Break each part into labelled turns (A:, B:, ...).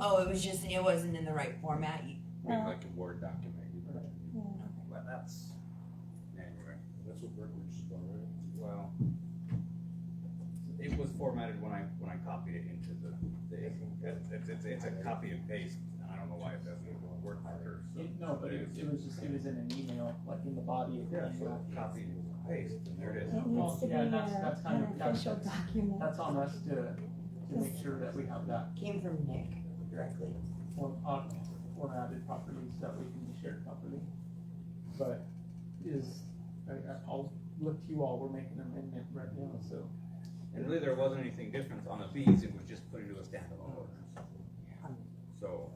A: Oh, it was just, it wasn't in the right format. You-
B: I
C: No.
B: mean, like a Word document. you put it in
D: Well, that's,
B: Anyway,
E: That's what Brookridge is about, right?
D: well, it was formatted when I, when I copied it into the, the, it's, it's, it's a copy and paste. I don't know why it doesn't work better, so.
F: It- No, but it was, it was just, it was in an email, like in the body of the
D: Yeah, so
F: email.
D: copy and paste, and there it is.
C: It
F: Well,
C: needs to be
F: yeah, that's-
C: a-
F: that's kind
C: an
F: of- that's-
C: official document.
F: That's on us to, to make sure that we have that
A: Came from Nick directly.
F: form, on, formatted properly so that we can be shared properly. But is, I, I- I'll look to you all, we're making an amendment right now, so.
D: And really, there wasn't anything different on the fees, it was just put into a standalone ordinance. So,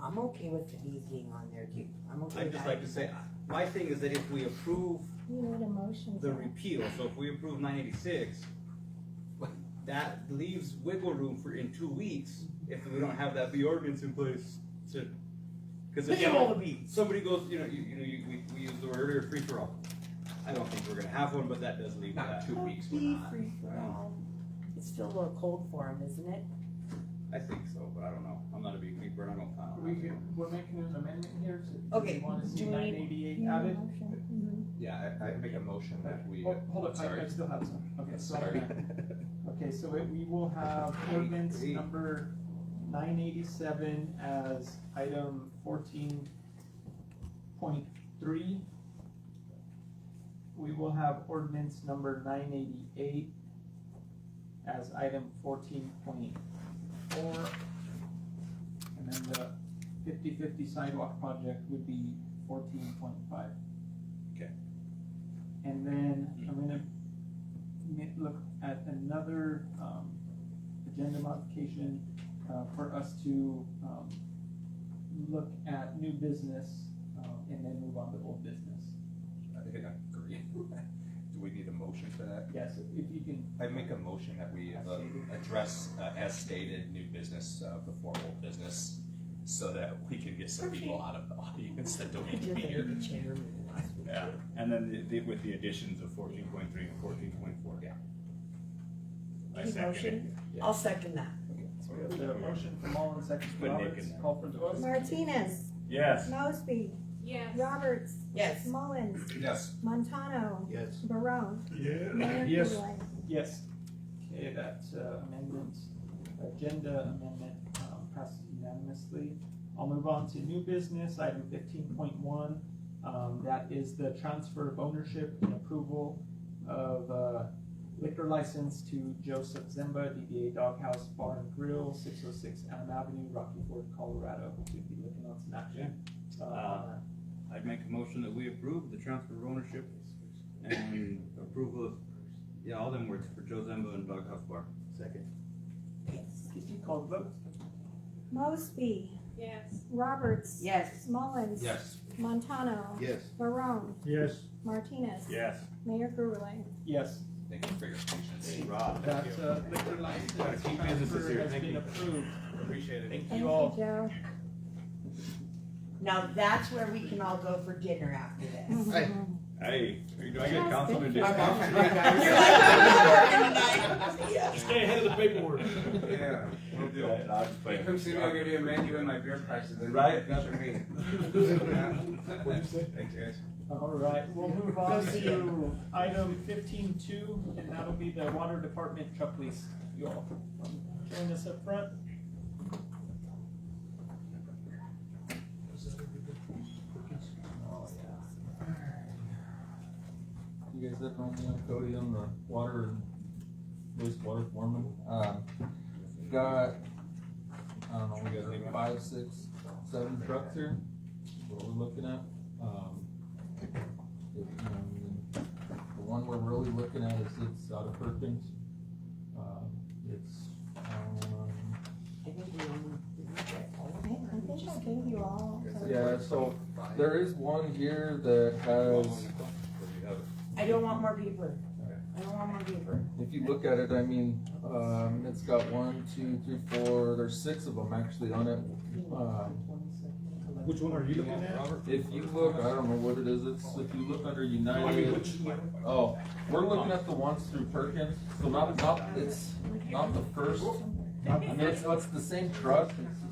A: I'm okay with the bees being on there too. I'm okay
D: I'd
A: with
D: just
A: that.
D: like to say, my thing is that if we approve
C: You need a motion.
D: the
C: for
D: repeal, so if we approve nine eighty-six, that leaves wiggle room for in two weeks, if we don't have that B ordinance in place to, cause
A: Look
D: if
A: at all
D: somebody,
A: the bees.
D: somebody goes, you know, you, you know, you, we, we used the word earlier, free for all. I don't think we're gonna have one, but that does leave
B: not
D: that,
B: two weeks, we're
A: Bee
B: not.
A: free for all. It's still a little cold for him, isn't it?
D: I think so, but I don't know, I'm not a beekeeper, and I don't plan on.
F: We
D: having one.
F: can, we're making an amendment here, so do
A: Okay,
F: you wanna see
A: do we
F: nine
A: need-
C: it.
F: eighty-eight
C: You need a
F: added?
C: motion.
B: Yeah, I, I make a motion that we,
E: Oh,
F: Hold hold up, I, I
B: sorry,
F: still have some, okay, so.
B: sorry.
F: Okay, so it- we will have ordinance
D: Eight.
F: number nine eighty-seven as item fourteen point three. We will have ordinance number nine eighty-eight as item fourteen point four. And then the fifty-fifty sidewalk project would be fourteen point five.
D: Okay.
F: And then I'm gonna mi- look at another, um, agenda modification, uh, for us to, um, look at new business, um, and then move on to old business.
B: I think I agree. Do we need a motion for that?
F: Yes, if you can,
B: I make a motion that we uh, address, uh, as stated, new business, uh, before old business, so that we can get some people out of the audience that don't need to be here. Yeah,
G: And then the- the, with the additions of fourteen point three and fourteen point four.
B: Yeah.
G: I
C: Any
G: second it.
C: motion?
A: I'll second that.
F: so we have the motion from Mullins, second from
G: Put Nick in
F: Roberts,
G: there.
F: call for the vote.
C: Martinez,
G: Yes.
C: Mosby,
H: Yes.
C: Roberts,
A: Yes.
C: Mullins,
B: Yes.
C: Montano,
B: Yes.
C: Barone,
G: Yeah.
C: Mayor
G: Yes.
C: Eloy.
F: Yes. Okay, that uh, amendment, agenda amendment um, passes unanimously. I'll move on to new business, item fifteen point one. Um, That is the transfer of ownership and approval of uh, liquor license to Joseph Zimba, DBA Doghouse Bar and Grill, six oh six Elm Avenue, Rocky Ford, Colorado. Should be looking on some action. uh, on that.
D: I'd make a motion that we approve the transfer of ownership and approval of, yeah, all them words for Joe Zembo and Doghouse Bar. Second.
A: Yes.
F: Could you call the vote?
C: Mosby,
H: Yes.
C: Roberts,
A: Yes.
C: Mullins,
B: Yes.
C: Montano,
B: Yes.
C: Barone,
G: Yes.
C: Martinez,
G: Yes.
C: Mayor Gurley.
F: Yes.
B: Thank you for your patience.
D: Rob,
F: That
D: thank you.
F: uh, liquor license
D: Gotta keep businesses
F: transfer
D: here,
F: has
D: thank
F: been
D: you.
F: approved.
D: Appreciate it.
F: Thank
C: Thank
F: you
C: you,
F: all.
C: Joe.
A: Now that's where we can all go for dinner after this.
G: Hey, do I get
C: Yes,
G: council
C: thank
G: to
C: you.
A: I'm off
G: discuss?
A: for three guys. You're like, I'm not working tonight. Yeah.
G: Stay ahead of the paperwork.
D: Yeah, we'll do it.
G: I'll just play it.
D: Come see me, I'll give you a menu and my beer prices. and
G: Right.
D: That's for me.
G: What'd you say?
D: Thanks, guys.
F: All right, we'll move on
A: Go see
F: to item fifteen two, and that'll be the water department truck lease. You all, um, join us up front.
I: You guys that don't know Cody on the water and wastewater foreman, um, got, I don't know, we got five, six, seven trucks here, what we're looking at, um. it- um, The one we're really looking at is it's out of Perkins, um, it's, um,
A: I think we only- we get all of
C: I,
A: them,
C: I
A: or
C: think
A: just-
C: I gave you all. of-
I: yeah, so there is one here that has,
A: I don't want more paper. I don't want more paper.
I: If you look at it, I mean, um, it's got one, two, three, four, there's six of them actually on it. Um,
G: Which one are you looking
F: Uh,
G: at?
I: if you look, I don't know what it is, it's, if you look under United, oh, we're looking at the ones through Perkins, so not, not, it's not the first. I mean, it's, it's the same truck,